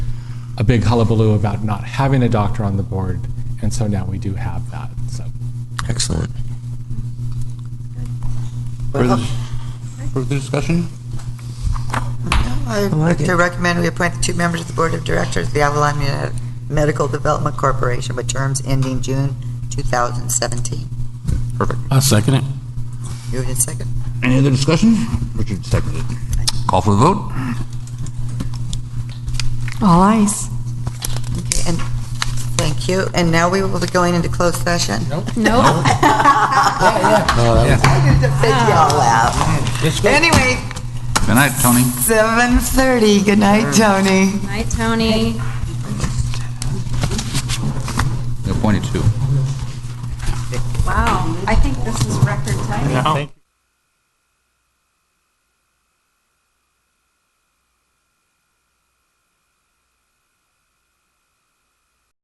a big hullabaloo about not having a doctor on the board, and so now we do have that. So Excellent. Further further discussion? I'd like like to it. recommend we appoint the two members of the Board of Directors of the Avalon Med- Medical Development Corporation with terms ending June 2017. Perfect. I'll second it. Moved in second. Any other discussion? Richard seconded. Call for the vote? All eyes. Okay, and, thank you. And now we will be going into closed session. No. Oh, I could have said y'all out. Anyway, Good night, Tony. 7:30. Good night, Tony. Hi, Tony. Appointed two. Wow, I think this is record timing. Thank you.